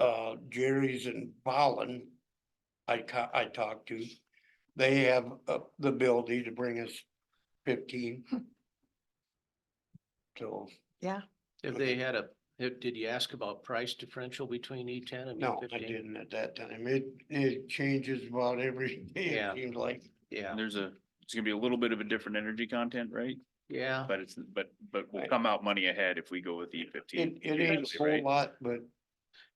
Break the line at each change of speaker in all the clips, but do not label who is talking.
uh, Jerry's and Pollen, I ca- I talked to, they have uh, the ability to bring us fifteen. So,
If they had a, if- did you ask about price differential between E ten and E
no, I
fifteen?
didn't at that time. It, it changes about every day,
Yeah.
it seems like.
Yeah,
And there's a, it's gonna be a little bit of a different energy content, right?
yeah,
But it's, but, but
Uh-huh.
we'll
Right.
come out money ahead if we go with E
It,
fifteen.
it ain't a whole lot, but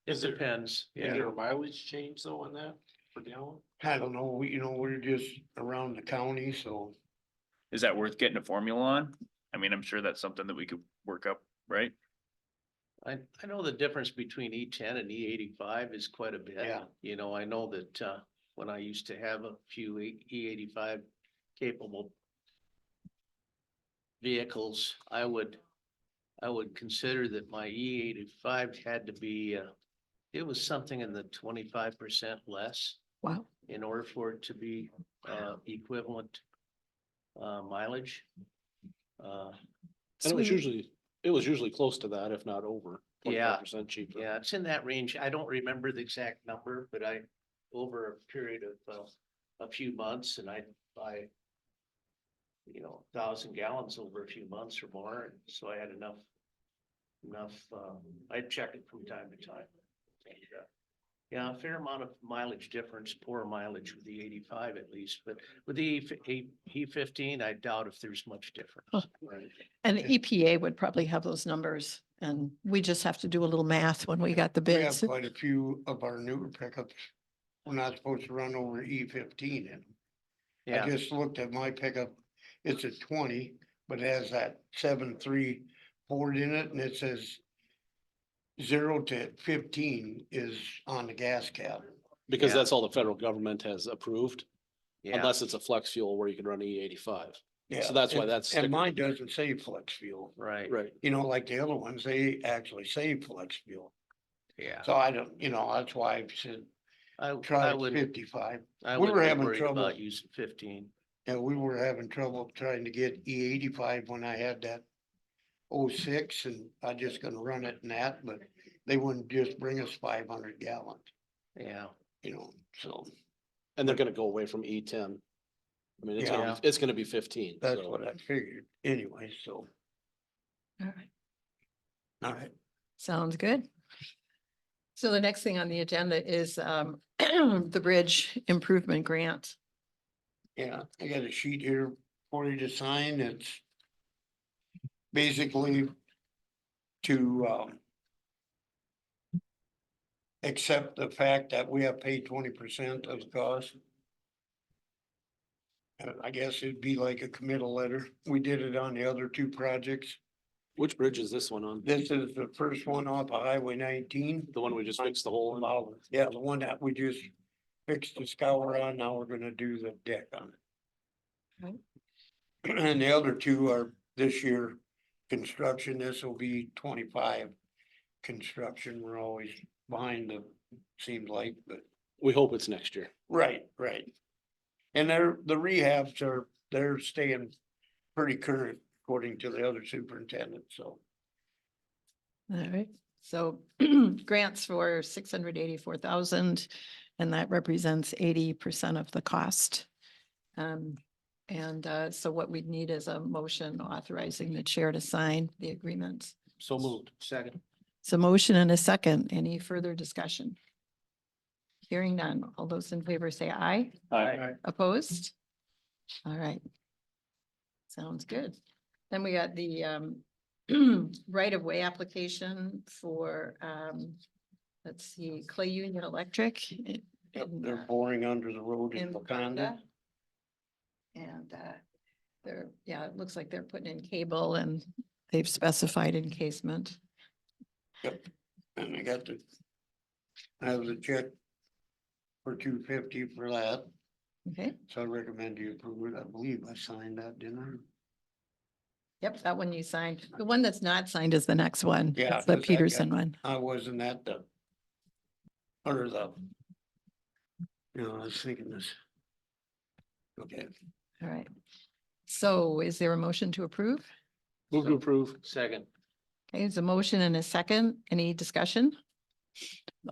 it depends,
Is
yeah,
there a mileage change though on that for gallon?
I don't know, we, you know, we're just around the county, so.
Is that worth getting a formula on? I mean, I'm sure that's something that we could work up, right?
I, I know the difference between E ten and E eighty-five is quite a bit.
Yeah.
You know, I know that, uh, when I used to have a few E eighty-five capable vehicles, I would, I would consider that my E eighty-five had to be, uh, it was something in the twenty-five percent less.
Wow.
in order for it to be uh equivalent uh mileage. Uh,
And it was
Sweet.
usually, it was usually close to that, if not over.
Yeah.
Percent cheaper.
yeah, it's in that range. I don't remember the exact number, but I, over a period of uh a few months and I buy you know, thousand gallons over a few months or more, and so I had enough enough, um, I check it from time to time. And, uh, Yeah, a fair amount of mileage difference, poor mileage with the eighty-five at least, but with the E fifteen, I doubt if there's much difference.
Right.
And the EPA would probably have those numbers and we just have to do a little math when we got the
We have
bids.
quite a few of our newer pickups. We're not supposed to run over E fifteen in 'em. I
Yeah,
just looked at my pickup, it's a twenty, but it has that seven three Ford in it and it says. Zero to fifteen is on the gas cap.
Because
Yeah.
that's all the federal government has approved,
yeah,
unless it's a flex fuel where you can run E eighty-five.
Yeah,
that's why
and-
that's
And
sticker.
mine doesn't say flex fuel,
right,
Right.
you know, like the other ones, they actually say flex fuel.
yeah.
So I don't, you know, that's why I said
I,
try
I would,
fifty-five.
I
we
would be
were having
worried
trouble.
about using fifteen.
And we were having trouble trying to get E eighty-five when I had that 06 and I just gonna run it and that, but they wouldn't just bring us five hundred gallons,
Yeah,
you know, so
And they're gonna go away from E ten. I mean, it's gonna,
Yeah.
be- it's gonna be fifteen.
that's
so-
what I figured anyway, so,
All right,
all right.
Sounds good. So the next thing on the agenda is um, the Bridge Improvement Grant.
Yeah, I got a sheet here for you to sign. It's basically to um accept the fact that we have paid twenty percent of the cost. And I guess it'd be like a committal letter. We did it on the other two projects.
Which bridge is this one on?
This is the first one off of Highway nineteen.
The one we just fixed the hole in?
Yeah, the one that we just fixed the scour on, now we're gonna do the deck on it. And the other two are this year construction, this will be twenty-five construction, we're always behind the, seems like, but,
We hope it's next year.
right, right. And they're, the rehabs are, they're staying pretty current according to the other superintendent, so.
All right, so grants for six hundred eighty-four thousand, and that represents eighty percent of the cost. Um, and uh, so what we'd need is a motion authorizing the chair to sign the agreement.
So moved.
second,
So motion and a second. Any further discussion? Hearing none. All those in favor say aye.
Aye.
Opposed? All right. Sounds good. Then we got the um right-of-way application for um, let's see, Clay Union Electric. in-
Yep,
in,
They're
uh,
boring under the road in
in
Wakanda.
Wakanda. And uh, they're, yeah, it looks like they're putting in cable and they've specified encasement.
And I got the, I have the check for two fifty for that,
Okay,
so I recommend you approve it. I believe I signed that, didn't I?
yep, that one you signed. The one that's not signed is the next one.
Yeah,
It's
'cause
The
I got-
Peterson one.
I wasn't at the, under the, you know, I was thinking this. Okay,
All right. So is there a motion to approve?
Move to
So-
approve.
second.
Okay, There's a motion and a second. Any discussion?